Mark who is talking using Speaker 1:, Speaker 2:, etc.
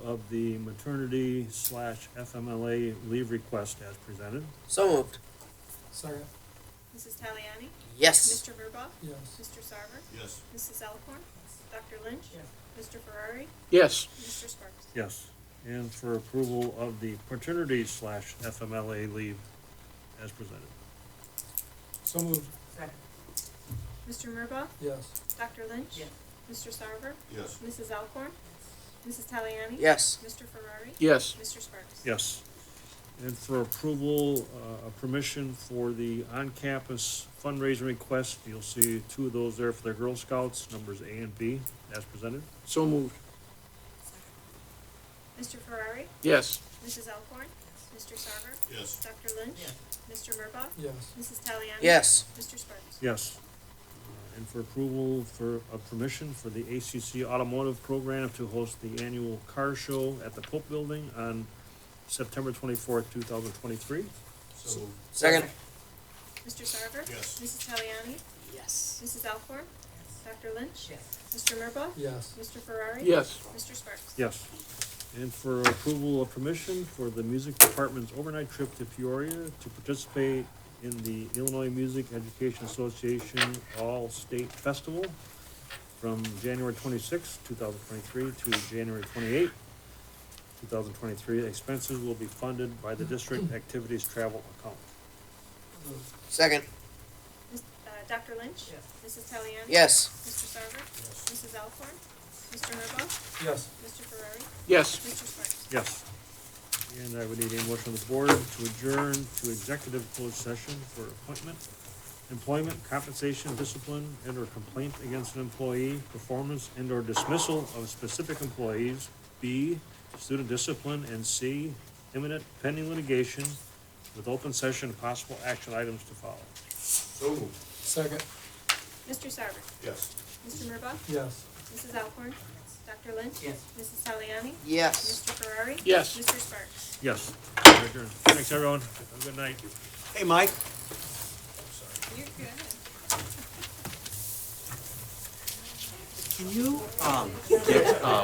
Speaker 1: of the maternity slash FMLA leave request as presented.
Speaker 2: So moved.
Speaker 3: Second,
Speaker 4: Mrs. Taliani?
Speaker 2: Yes.
Speaker 4: Mr. Murbaugh?
Speaker 3: yes.
Speaker 4: Mr. Sarver?
Speaker 5: yes,
Speaker 4: Mrs. Alcorn? Dr. Lynch?
Speaker 3: Yes.
Speaker 4: Mr. Ferrari?
Speaker 6: yes,
Speaker 4: Mr. Sparks?
Speaker 1: Yes. And for approval of the paternity slash FMLA leave as presented.
Speaker 3: So moved,
Speaker 4: Mr. Murbaugh?
Speaker 3: yes.
Speaker 4: Dr. Lynch?
Speaker 7: Yes.
Speaker 4: Mr. Sarver?
Speaker 5: yes,
Speaker 4: Mrs. Alcorn? Mrs. Taliani?
Speaker 2: Yes.
Speaker 4: Mr. Ferrari?
Speaker 6: yes,
Speaker 4: Mr. Sparks?
Speaker 1: Yes. And for approval, uh, a permission for the on-campus fundraising request, you'll see two of those there for the Girl Scouts, numbers A and B, as presented.
Speaker 6: so moved,
Speaker 4: Mr. Ferrari?
Speaker 6: yes,
Speaker 4: Mrs. Alcorn? Mr. Sarver?
Speaker 5: yes,
Speaker 4: Dr. Lynch?
Speaker 7: Yes.
Speaker 4: Mr. Murbaugh?
Speaker 3: Yes,
Speaker 4: Mrs. Taliani?
Speaker 2: Yes.
Speaker 4: Mr. Sparks?
Speaker 1: Yes. Uh, And for approval for, a permission for the ACC Automotive Program to host the annual car show at the Pope Building on September twenty-fourth, two thousand twenty-three.
Speaker 5: so moved,
Speaker 2: Second.
Speaker 4: Mr. Sarver?
Speaker 5: yes,
Speaker 4: Mrs. Taliani?
Speaker 2: Yes.
Speaker 4: Mrs. Alcorn? Dr. Lynch?
Speaker 7: Yes.
Speaker 4: Mr. Murbaugh?
Speaker 3: yes.
Speaker 4: Mr. Ferrari?
Speaker 6: yes,
Speaker 4: Mr. Sparks?
Speaker 1: Yes. And for approval of permission for the music department's overnight trip to Peoria to participate in the Illinois Music Education Association All-State Festival from January twenty-sixth, two thousand twenty-three to January twenty-eighth, two thousand twenty-three. Expenses will be funded by the district activities travel account.
Speaker 2: Second.
Speaker 4: Mis- uh, Dr. Lynch?
Speaker 7: Yes.
Speaker 4: Mrs. Taliani?
Speaker 2: Yes.
Speaker 4: Mr. Sarver?
Speaker 5: yes,
Speaker 4: Mrs. Alcorn? Mr. Murbaugh?
Speaker 3: Yes,
Speaker 4: Mr. Ferrari?
Speaker 6: yes,
Speaker 4: Mr. Sparks?
Speaker 1: Yes. And I would need a motion of the board to adjourn to executive closed session for appointment, employment, compensation, discipline, and/or complaint against an employee, performance and/or dismissal of specific employees, B, student discipline, and C, imminent pending litigation with open session and possible action items to follow.
Speaker 5: so moved,
Speaker 3: second,
Speaker 4: Mr. Sarver?
Speaker 5: yes.
Speaker 4: Mr. Murbaugh?
Speaker 3: yes.
Speaker 4: Mrs. Alcorn? Dr. Lynch?
Speaker 7: Yes.
Speaker 4: Mrs. Taliani?
Speaker 2: Yes.
Speaker 4: Mr. Ferrari?
Speaker 6: Yes.
Speaker 4: Mr. Sparks?
Speaker 1: Yes, we're adjourned. Thanks, everyone. Have a good night.
Speaker 5: Hey, Mike.
Speaker 4: You're good.
Speaker 5: Can you, um,